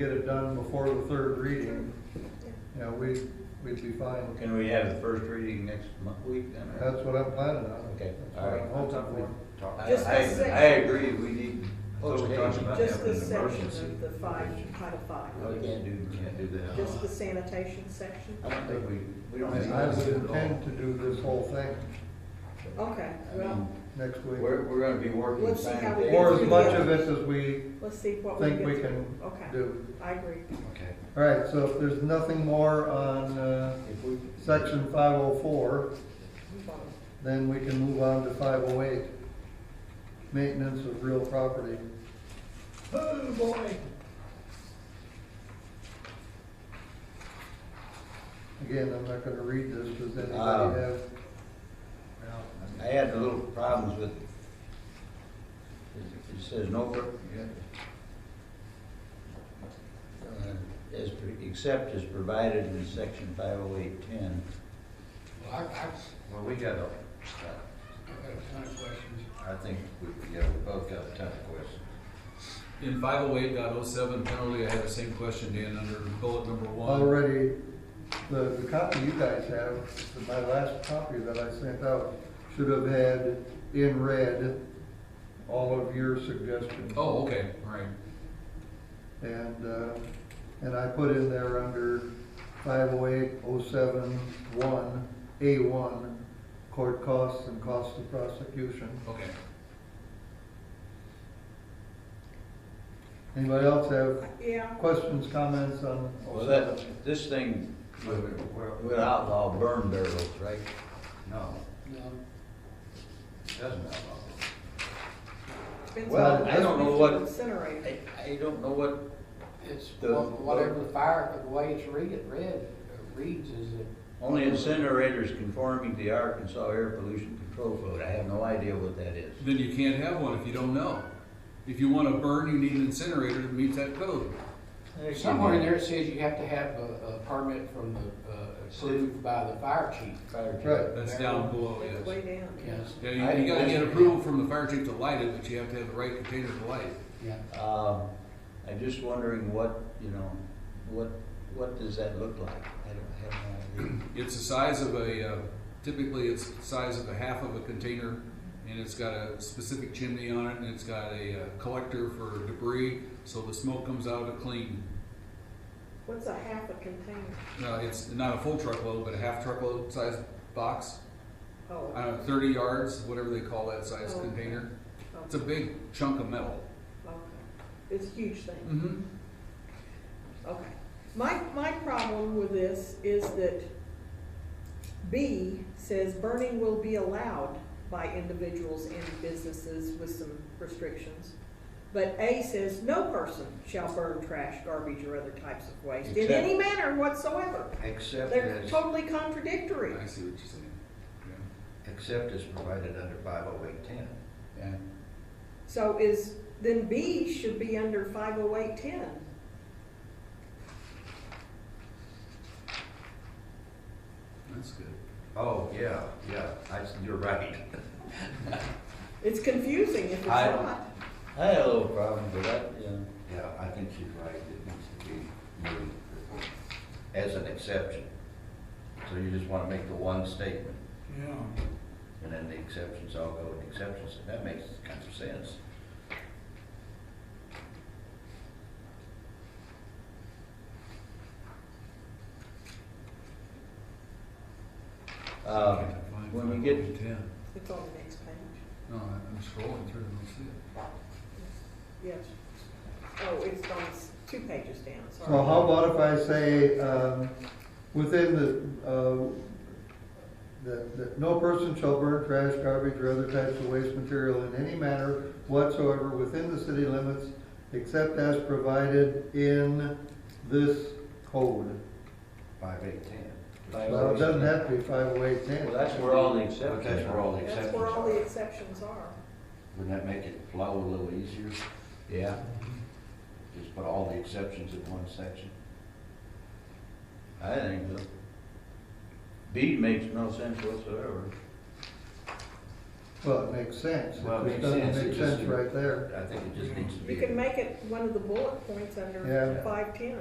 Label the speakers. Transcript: Speaker 1: get it done before the third reading, you know, we, we'd be fine.
Speaker 2: Can we have the first reading next month, week then? or-
Speaker 1: That's what I'm planning on.
Speaker 2: Okay,
Speaker 1: That's
Speaker 2: all
Speaker 1: what
Speaker 2: right.
Speaker 1: I'm hoping for.
Speaker 2: I,
Speaker 3: Just
Speaker 2: I-
Speaker 3: the
Speaker 2: I agree, we need
Speaker 4: Well, we're
Speaker 2: postage.
Speaker 4: talking about
Speaker 3: Just
Speaker 4: having
Speaker 3: the
Speaker 4: an
Speaker 3: section
Speaker 4: emergency.
Speaker 3: of the five, Title
Speaker 2: No, we
Speaker 3: five,
Speaker 2: can't do, we can't do that.
Speaker 3: just the sanitation section?
Speaker 2: I don't think we, we don't have.
Speaker 1: And I would
Speaker 2: to do it all.
Speaker 1: intend to do this whole thing
Speaker 3: Okay,
Speaker 2: I
Speaker 3: well,
Speaker 2: mean,
Speaker 1: next week.
Speaker 2: We're, we're gonna be working
Speaker 3: Let's see how we
Speaker 2: sanitation.
Speaker 3: get
Speaker 1: Or
Speaker 3: through
Speaker 1: as much of this as we
Speaker 3: let's see what we
Speaker 1: think we
Speaker 3: get to.
Speaker 1: can
Speaker 3: Okay,
Speaker 1: do.
Speaker 3: I agree.
Speaker 2: Okay.
Speaker 1: All right, so if there's nothing more on, uh,
Speaker 2: If we-
Speaker 1: section five oh four,
Speaker 3: Move on.
Speaker 1: then we can move on to five oh eight. Maintenance of real property.
Speaker 2: Oh, boy.
Speaker 1: Again, I'm not gonna read this, does
Speaker 2: Ah.
Speaker 1: anybody have?
Speaker 2: I had a little problems with, it says no, per- uh, as, per- except as provided in section five oh eight ten.
Speaker 5: Well, I, I,
Speaker 4: Well, we got a,
Speaker 5: I've got a ton of questions.
Speaker 4: I think we, yeah, we both got a ton of questions.
Speaker 6: In five oh eight point oh seven penalty, I have the same question, Dan, under bullet number one.
Speaker 1: Already, the, the copy you guys have, my last copy that I sent out, should have had in red all of your suggestions.
Speaker 6: Oh, okay, all right.
Speaker 1: And, uh, and I put in there under five oh eight oh seven one, A one, court costs and costs of prosecution.
Speaker 6: Okay.
Speaker 1: Anybody else have
Speaker 3: Yeah,
Speaker 1: questions, comments on?
Speaker 2: Well, that, this thing would would outlaw burn barrels, right?
Speaker 4: No,
Speaker 5: No,
Speaker 4: it doesn't have all
Speaker 3: depends
Speaker 2: Well,
Speaker 3: on
Speaker 2: I don't know
Speaker 3: if
Speaker 2: what-
Speaker 3: you Incinerate.
Speaker 2: I, I don't know what,
Speaker 5: it's
Speaker 2: The-
Speaker 5: wha- whatever the fire, the way it's read, it read, uh, reads is it.
Speaker 2: only incinerators conforming to the Arkansas Air Pollution Control Code, I have no idea what that is.
Speaker 6: Then you can't have one if you don't know. If you want to burn, you need an incinerator that meets that code.
Speaker 5: Somewhere in there it says you have to have a, a permit from the, uh, approved by the fire chief.
Speaker 2: Fire chief.
Speaker 1: Right.
Speaker 6: That's down below,
Speaker 3: It's
Speaker 6: Oh, yes.
Speaker 3: way down.
Speaker 5: Yes,
Speaker 6: Yeah, you, you gotta get approval from the fire chief to light it, but you have to have the right container to light it.
Speaker 5: yeah.
Speaker 2: Um, I'm just wondering what, you know, what, what does that look like? I don't have no idea.
Speaker 6: It's the size of a, uh, typically it's the size of a half of a container, and it's got a specific chimney on it, and it's got a uh, collector for debris, so the smoke comes out of it clean.
Speaker 3: What's a half a container?
Speaker 6: No, it's not a full truckload, but a half truckload size box, I
Speaker 3: Oh,
Speaker 6: don't know, thirty yards, whatever they call that size
Speaker 3: Oh.
Speaker 6: container. It's a
Speaker 3: okay,
Speaker 6: big chunk of metal.
Speaker 3: okay. It's a huge thing.
Speaker 6: Mm-hmm.
Speaker 3: Okay. My, my problem with this is that B says burning will be allowed by individuals and businesses with some restrictions. But A says no person shall burn trash, garbage, or other types of waste in any manner whatsoever.
Speaker 4: Except
Speaker 3: They're
Speaker 4: as,
Speaker 3: totally contradictory.
Speaker 6: I see what you're saying. Yeah.
Speaker 4: except as provided under five oh eight ten.
Speaker 2: Yeah.
Speaker 3: So is, then B should be under five oh eight ten.
Speaker 6: That's good.
Speaker 4: Oh, yeah, yeah, I, you're right.
Speaker 3: It's confusing if it's
Speaker 4: I-
Speaker 3: not.
Speaker 2: I had a little problem with that, you know.
Speaker 4: Yeah, I think she's right, it needs to be moved as an exception. So you just wanna make the one statement,
Speaker 5: Yeah.
Speaker 4: and then the exceptions all go in exceptions, and that makes kind of sense.
Speaker 2: Uh, when we get-
Speaker 6: ten.
Speaker 3: It's on the next page.
Speaker 6: No, I- I'm scrolling through and I see it.
Speaker 3: Yes. Oh, it's on s- two pages down, sorry.
Speaker 1: So how about if I say, um, within the, uh, that, that no person shall burn trash, garbage, or other types of waste material in any manner whatsoever within the city limits, except as provided in this code.
Speaker 4: Five eight ten.
Speaker 1: Well, it doesn't have to be five oh eight ten.
Speaker 2: Well, that's where all the
Speaker 4: But that's
Speaker 2: exceptions
Speaker 4: where
Speaker 2: are.
Speaker 4: all the
Speaker 3: That's
Speaker 4: exceptions
Speaker 3: where all the
Speaker 4: are.
Speaker 3: exceptions are.
Speaker 4: Wouldn't that make it flow a little easier?
Speaker 2: Yeah.
Speaker 4: Just put all the exceptions in one section?
Speaker 2: I think so. B makes no sense whatsoever.
Speaker 1: Well, it makes sense.
Speaker 4: Well,
Speaker 1: It
Speaker 4: it
Speaker 1: just
Speaker 4: makes sense.
Speaker 1: doesn't
Speaker 4: It
Speaker 1: make
Speaker 4: just-
Speaker 1: sense right there.
Speaker 4: I think it just needs to be.
Speaker 3: You can make it one of the bullet points
Speaker 1: Yeah.
Speaker 3: under five ten.